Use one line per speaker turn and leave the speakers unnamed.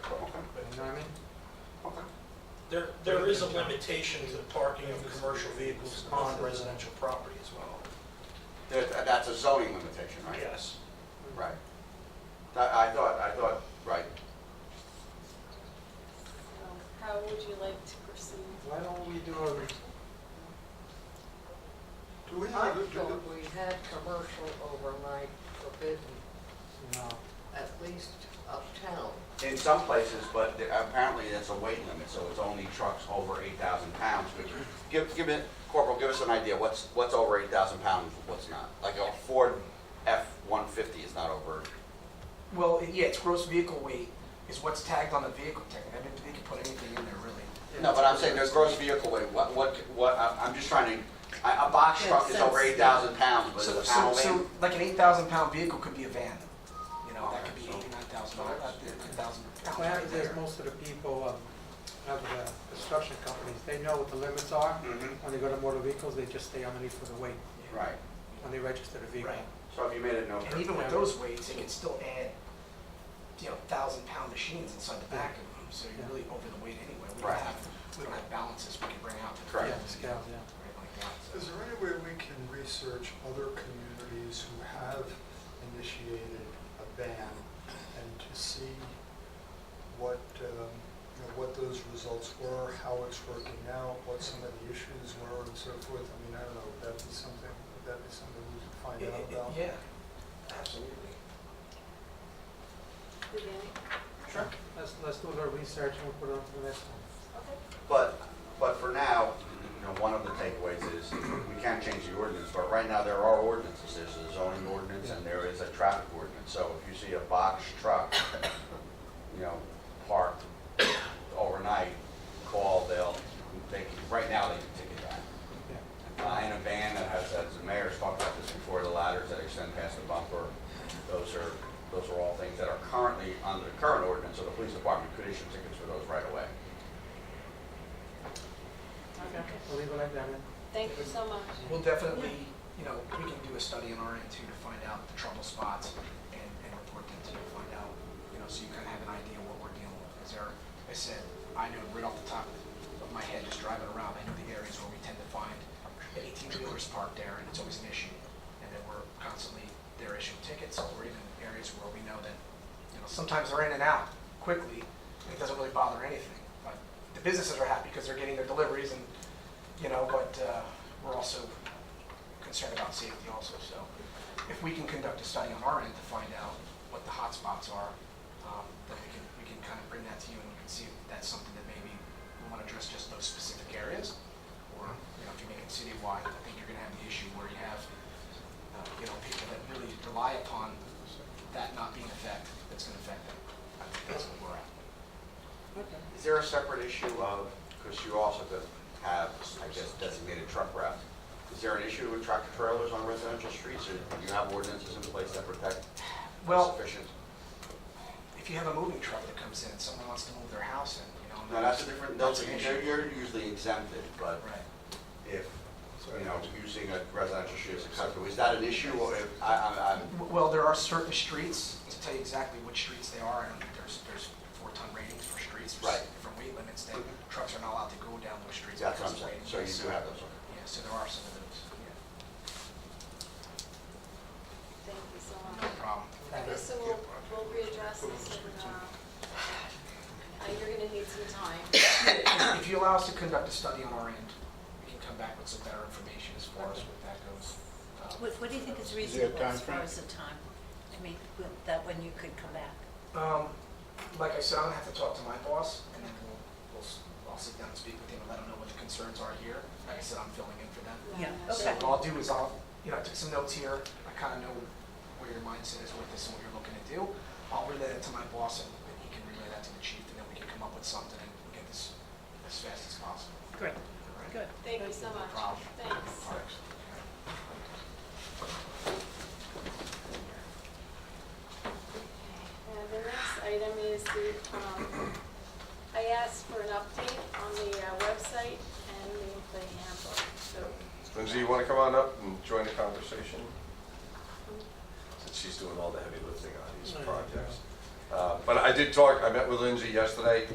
There, there is a limitation to the parking of commercial vehicles on residential property as well.
There- That's a zoning limitation, right?
Yes.
Right. I, I thought, I thought, right.
So Um, How would you like to proceed?
Why don't we do a, re-
Do we
I
have, do-
thought
do-
we had commercial overnight forbidden,
no,
at least uptown.
In some places, but there- apparently it's a weight limit, so it's only trucks over 8,000 pounds. But Give, give it, Corporal, give us an idea, what's, what's over 8,000 pounds, what's not? Like a Ford F-150 is not over,
Well, it- yeah, it's gross vehicle weight is what's tagged on the vehicle tag. I mean, they could put anything in there, really.
no, but I'm saying there's gross vehicle weight, what, what, what, I- I'm just trying to, a a box truck is over 8,000 pounds, but
So,
a
so, so,
Howland,
like an eight thousand pound vehicle could be a van, you know, that could
Oh,
be eighty-nine thousand, uh, ten thousand pounds
Well,
right
there's
there.
most of the people, um, of the construction companies, they know what the limits are.
Mhm.
When they go to motor vehicles, they just stay underneath for the weight,
right.
when they register the vehicle.
Right.
So if you made it no.
And even with those weights, they could still add, you know, thousand pound machines inside the back of them, so you're really over the weight anyway. We don't
Right.
have, we don't have balances we can bring out to the
Correct.
field,
Yeah, scales, yeah.
right, like that,
is
so.
there any way we can research other communities who have initiated a ban and to see what, um, you know, what those results were, how it's working out, what some of the issues were and so forth? I mean, I don't know, would that be something, would that be something we could find
It-
out
it- it-
about?
Yeah, absolutely.
Vivian?
Sure. Let's, let's do a little research and we'll put it on to the next one.
Okay.
But, but for now, you know, one of the takeaways is we can't change the ordinance, but right now there are ordinances. There's a zoning ordinance and there is a traffic ordinance. So if you see a box truck, you know, parked overnight, call, they'll, they, can- right now they can ticket that.
Yeah.
Uh, And a van that has, as the mayor's talked about this before, the ladders that extend past the bumper, those are, those are all things that are currently under the current ordinance, so the police department could issue tickets for those right away.
We'll leave it like that then.
Thank you so much.
We'll definitely, you know, we can do a study on our end too to find out the trouble spots and, and report them to you, find out, you know, so you kind of have an idea what we're dealing with. As Eric has said, I know right off the top of my head, just driving around, I know the areas where we tend to find eighteen wheelers parked there and it's always an issue. And then we're constantly, they're issuing tickets or even areas where we know that, you know, sometimes they're in and out quickly and it doesn't really bother anything. But the businesses are happy because they're getting their deliveries and you know, but uh, we're also concerned about safety also, so if we can conduct a study on our end to find out what the hot spots are, um, then we can, we can kind of bring that to you and we can see if that's something that maybe we want to address just those specific areas, or, you know, if you make it citywide, I think you're going to have the issue where you have, uh, you know, people that really rely upon that not being affected, that's going to affect them. I think that's what we're at.
Is there a separate issue of, because you also do have, I guess, designated truck routes, is there an issue with tractor trailers on residential streets, or do you have ordinances in place that protect
Well,
sufficient?
if you have a moving truck that comes in, someone wants to move their house in, you know.
No, that's a different, that's,
an
you're
issue.
you're usually exempted, but
Right.
if, you know, using a residential street is acceptable, is that an issue, or if, I, I, I'm,
W- Well, there are certain streets, to tell you exactly which streets they are, and there's, there's four-ton ratings for streets. there's
Right.
Different weight limits, that trucks are not allowed to go down those streets.
that's what
because
I'm
of
saying,
weight.
so you do
Yes.
have those.
Yeah, so there are some of those, yeah,
Thank you so
no
much.
problem.
Okay, so we'll, we'll readdress this and, uh, uh, you're gonna need some time.
If- If you allow us to conduct a study on our end, we can come back with some better information as far as what that goes. Uh,
What, what do you think is reasonable as far as the time? I mean, with- that when you could come back?
Um, like I said, I'm gonna have to talk to my boss, and then we'll, we'll, s- I'll sit down and speak with him and let him know what the concerns are here. Like I said, I'm filling in for them.
Yeah,
Uh,
So
okay.
what I'll do is I'll, you know, I took some notes here, I kind of know where your mindset is with this and what you're looking to do. I'll relay that to my boss and and he can relay that to the chief and then we can come up with something and get this as fast as possible.
Great,
All right?
good.
Thank you so
No
much.
problem.
Thanks.
All right. Okay.
And the next item is the, um, I asked for an update on the uh, website and the employee handbook, so.
Lindsay, you want to come on up and join the conversation? Since she's doing all the heavy lifting on these projects. Uh, But I did talk, I met with Lindsay yesterday.